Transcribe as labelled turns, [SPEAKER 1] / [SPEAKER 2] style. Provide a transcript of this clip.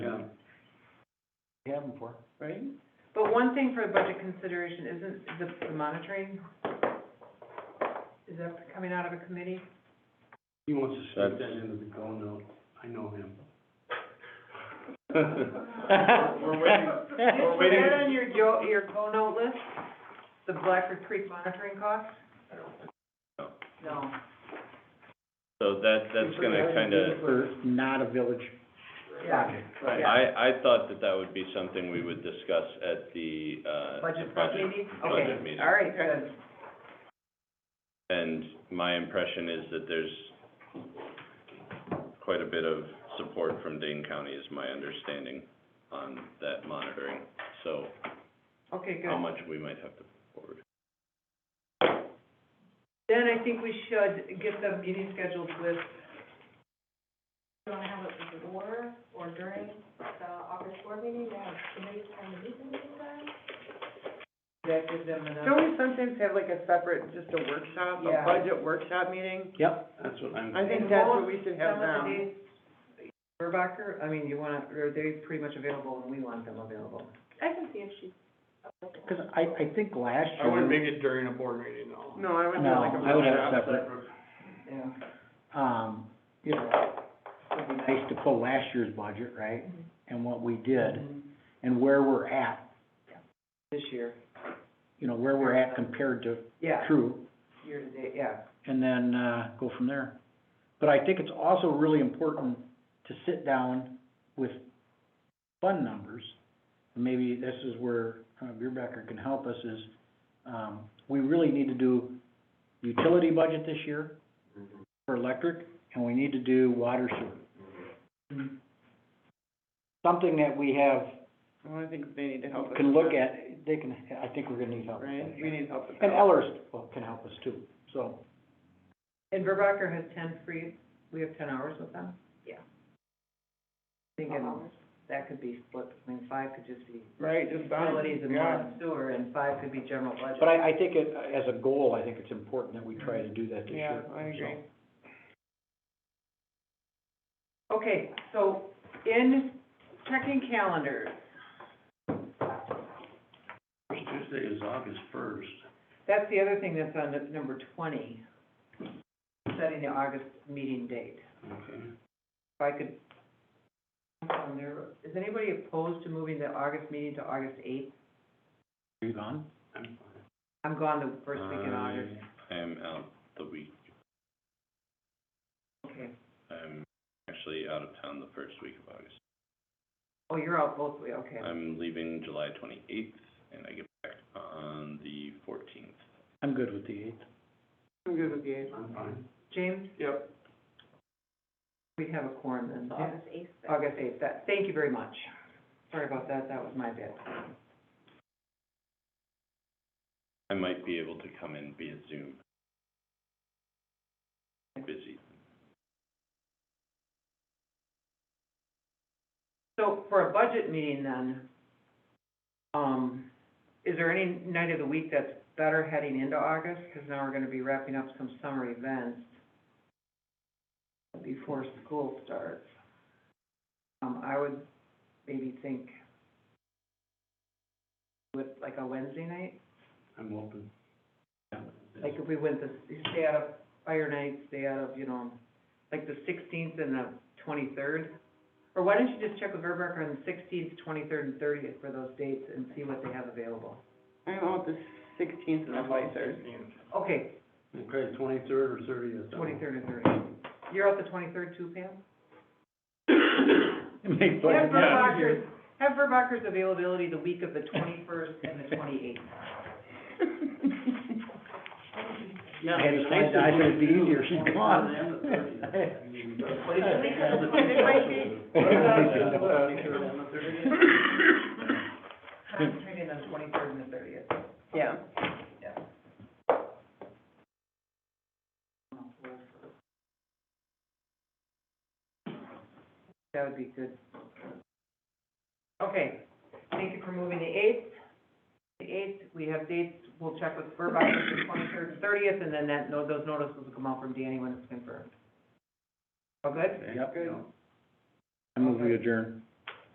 [SPEAKER 1] we have them for.
[SPEAKER 2] right? But one thing for the budget consideration isn't the, the monitoring. Is that coming out of a committee?
[SPEAKER 1] He wants to sneak
[SPEAKER 3] That's-
[SPEAKER 1] that into the go note. I know him.
[SPEAKER 3] We're waiting,
[SPEAKER 2] Did you
[SPEAKER 3] we're
[SPEAKER 2] put
[SPEAKER 3] waiting.
[SPEAKER 2] that on your jo, your co-note list? The Blackford Creek monitoring cost?
[SPEAKER 3] so.
[SPEAKER 2] No.
[SPEAKER 3] So that, that's gonna kinda,
[SPEAKER 4] For not a village project.
[SPEAKER 2] Yeah.
[SPEAKER 3] I, I thought that that would be something we would discuss at the, uh,
[SPEAKER 2] Budget
[SPEAKER 3] the
[SPEAKER 2] committee?
[SPEAKER 3] budget
[SPEAKER 2] Okay,
[SPEAKER 3] meeting.
[SPEAKER 2] all right, good.
[SPEAKER 3] And my impression is that there's quite a bit of support from Dane County is my understanding on that monitoring. So
[SPEAKER 2] Okay, good.
[SPEAKER 3] how much we might have to put forward.
[SPEAKER 2] Then I think we should get the meeting scheduled with,
[SPEAKER 5] You wanna have it before or during the August board meeting, you have committees trying to meet in the meantime?
[SPEAKER 6] That gives them enough.
[SPEAKER 7] Don't we sometimes have like a separate, just a workshop, a
[SPEAKER 6] Yeah.
[SPEAKER 7] budget workshop meeting?
[SPEAKER 1] Yep, that's what I'm.
[SPEAKER 7] I think
[SPEAKER 2] And
[SPEAKER 7] that's
[SPEAKER 2] won't
[SPEAKER 7] what we should have
[SPEAKER 2] some
[SPEAKER 7] now.
[SPEAKER 2] of the days, Verbacher, I mean, you want, are they pretty much available and we want them available?
[SPEAKER 5] I can see if she's available.
[SPEAKER 4] Cause I, I think last year.
[SPEAKER 6] I wouldn't make it during a board meeting, no.
[SPEAKER 7] No, I would
[SPEAKER 4] No,
[SPEAKER 7] have like a.
[SPEAKER 4] I would have
[SPEAKER 7] workshop.
[SPEAKER 4] separate.
[SPEAKER 2] Yeah.
[SPEAKER 4] um, you know, it'd be nice to pull last year's budget, right? And what we did, and where we're at,
[SPEAKER 2] This year,
[SPEAKER 4] you know, where we're at compared to
[SPEAKER 2] yeah,
[SPEAKER 4] true,
[SPEAKER 2] year to date, yeah.
[SPEAKER 4] and then, uh, go from there. But I think it's also really important to sit down with fund numbers. Maybe this is where, uh, Beerbacker can help us is, um, we really need to do utility budget this year for electric, and we need to do water sewer. Something that we have,
[SPEAKER 7] Oh, I think they need to help us.
[SPEAKER 4] can
[SPEAKER 7] with
[SPEAKER 4] look
[SPEAKER 7] that,
[SPEAKER 4] at, they can, I think we're gonna need help. with that.
[SPEAKER 7] Right, we need help with that.
[SPEAKER 4] And Ellers well, can help us too, so.
[SPEAKER 2] And Verbacher has ten free, we have ten hours with them?
[SPEAKER 5] Yeah.
[SPEAKER 2] Thinking
[SPEAKER 5] Twelve hours.
[SPEAKER 2] that could be split between five could just be
[SPEAKER 7] Right, just. that,
[SPEAKER 2] utilities and
[SPEAKER 7] yeah.
[SPEAKER 2] water and sewer, and five could be general budget.
[SPEAKER 4] But I, I think it, as a goal, I think it's important that we try to do that this
[SPEAKER 7] Yeah,
[SPEAKER 4] year.
[SPEAKER 7] I agree.
[SPEAKER 4] so.
[SPEAKER 2] Okay, so in checking calendars,
[SPEAKER 1] First Tuesday is August first.
[SPEAKER 2] that's the other thing that's on the- number twenty, setting the August meeting date.
[SPEAKER 1] Okay.
[SPEAKER 2] If I could, on there, is anybody opposed to moving the August meeting to August eighth?
[SPEAKER 4] Are you gone?
[SPEAKER 1] I'm fine.
[SPEAKER 2] I'm gone the first week
[SPEAKER 3] Uh,
[SPEAKER 2] in August.
[SPEAKER 3] I am out the week,
[SPEAKER 2] Okay.
[SPEAKER 3] I'm actually out of town the first week of August.
[SPEAKER 2] Oh, you're out both ways, okay.
[SPEAKER 3] I'm leaving July twenty-eighth, and I get back on the fourteenth.
[SPEAKER 4] I'm good with the eighth.
[SPEAKER 7] I'm good with the eight.
[SPEAKER 1] I'm fine.
[SPEAKER 2] James,
[SPEAKER 6] Yep.
[SPEAKER 2] we have a quorum then.
[SPEAKER 5] So August eighth.
[SPEAKER 2] August eighth, that, thank you very much. Sorry about that, that was my bad.
[SPEAKER 3] I might be able to come in via Zoom. Busy.
[SPEAKER 2] So for a budget meeting then, um, is there any night of the week that's better heading into August? Because now we're gonna be wrapping up some summer events before school starts. Um, I would maybe think with like a Wednesday night,
[SPEAKER 1] I'm open.
[SPEAKER 2] like if we went the, stay out of fire night, stay out of, you know, like the sixteenth and the twenty-third? Or why don't you just check with Verbacher on the sixteenth, twenty-third, and thirtieth for those dates and see what they have available?
[SPEAKER 7] I'm out the sixteenth and the twenty-third.
[SPEAKER 2] Okay,
[SPEAKER 1] Okay, twenty-third or thirtieth.
[SPEAKER 2] twenty-third and thirtieth. You're out the twenty-third too, Pam?
[SPEAKER 4] Make
[SPEAKER 2] Have
[SPEAKER 4] fun.
[SPEAKER 2] Verbacher's, have Verbacher's availability the week of the twenty-first and the twenty-eighth.
[SPEAKER 1] Yeah,
[SPEAKER 4] I had to find out if it'd be easier, she's gone.
[SPEAKER 2] Concentrating on the twenty-third and the thirtieth.
[SPEAKER 7] Yeah.
[SPEAKER 2] That would be good. Okay, thank you for moving the eighth. The eighth, we have dates, we'll check with Burbine for the twenty-third and thirtieth, and then that, no, those notices will come out from Danny when it's confirmed. All good?
[SPEAKER 4] Yep. I move we adjourn.